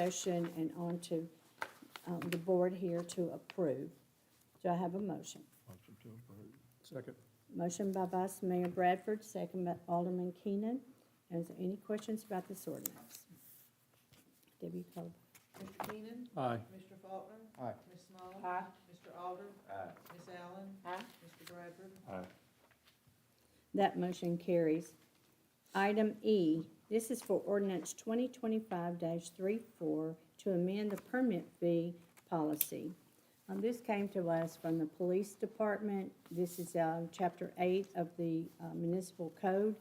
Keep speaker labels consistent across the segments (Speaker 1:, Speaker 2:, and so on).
Speaker 1: session and onto um, the board here to approve. Do I have a motion?
Speaker 2: Motion to approve.
Speaker 3: Second.
Speaker 1: Motion by Vice Mayor Bradford, second by Alderman Keenan. Is there any questions about this ordinance? Debbie Caldwell.
Speaker 4: Mr. Keenan.
Speaker 3: Aye.
Speaker 4: Mr. Faulkner.
Speaker 2: Aye.
Speaker 4: Ms. Small.
Speaker 5: Aye.
Speaker 4: Mr. Alder.
Speaker 2: Aye.
Speaker 4: Ms. Allen.
Speaker 5: Aye.
Speaker 4: Mr. Bradford.
Speaker 2: Aye.
Speaker 1: That motion carries. Item E, this is for ordinance twenty twenty-five 34 to amend the permit fee policy. Um, this came to us from the police department. This is, um, chapter eight of the uh, municipal code.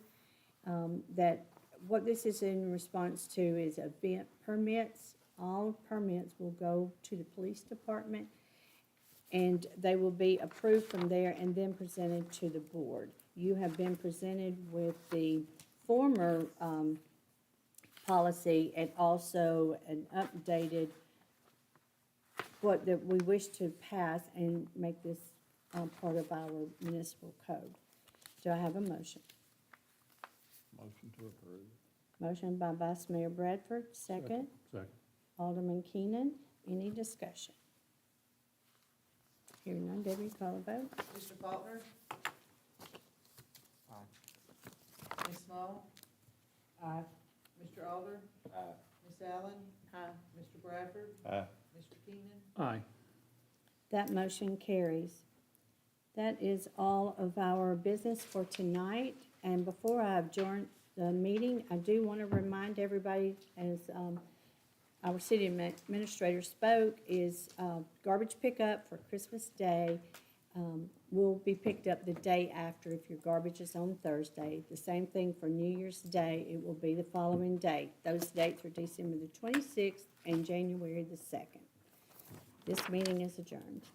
Speaker 1: Um, that, what this is in response to is event permits. All permits will go to the police department and they will be approved from there and then presented to the board. You have been presented with the former um, policy and also an updated, what that we wish to pass and make this um, part of our municipal code. Do I have a motion?
Speaker 2: Motion to approve.
Speaker 1: Motion by Vice Mayor Bradford, second.
Speaker 3: Second.
Speaker 1: Alderman Keenan, any discussion? Hearing none, Debbie, call a vote.
Speaker 4: Mr. Faulkner. Aye. Ms. Small.
Speaker 5: Aye.
Speaker 4: Mr. Alder.
Speaker 2: Aye.
Speaker 4: Ms. Allen.
Speaker 5: Aye.
Speaker 4: Mr. Bradford.
Speaker 2: Aye.
Speaker 4: Mr. Keenan.
Speaker 3: Aye.
Speaker 1: That motion carries. That is all of our business for tonight. And before I adjourn the meeting, I do want to remind everybody, as um, our city admin- administrator spoke, is uh, garbage pickup for Christmas Day um, will be picked up the day after if your garbage is on Thursday. The same thing for New Year's Day, it will be the following day. Those dates are December the 26th and January the 2nd. This meeting is adjourned.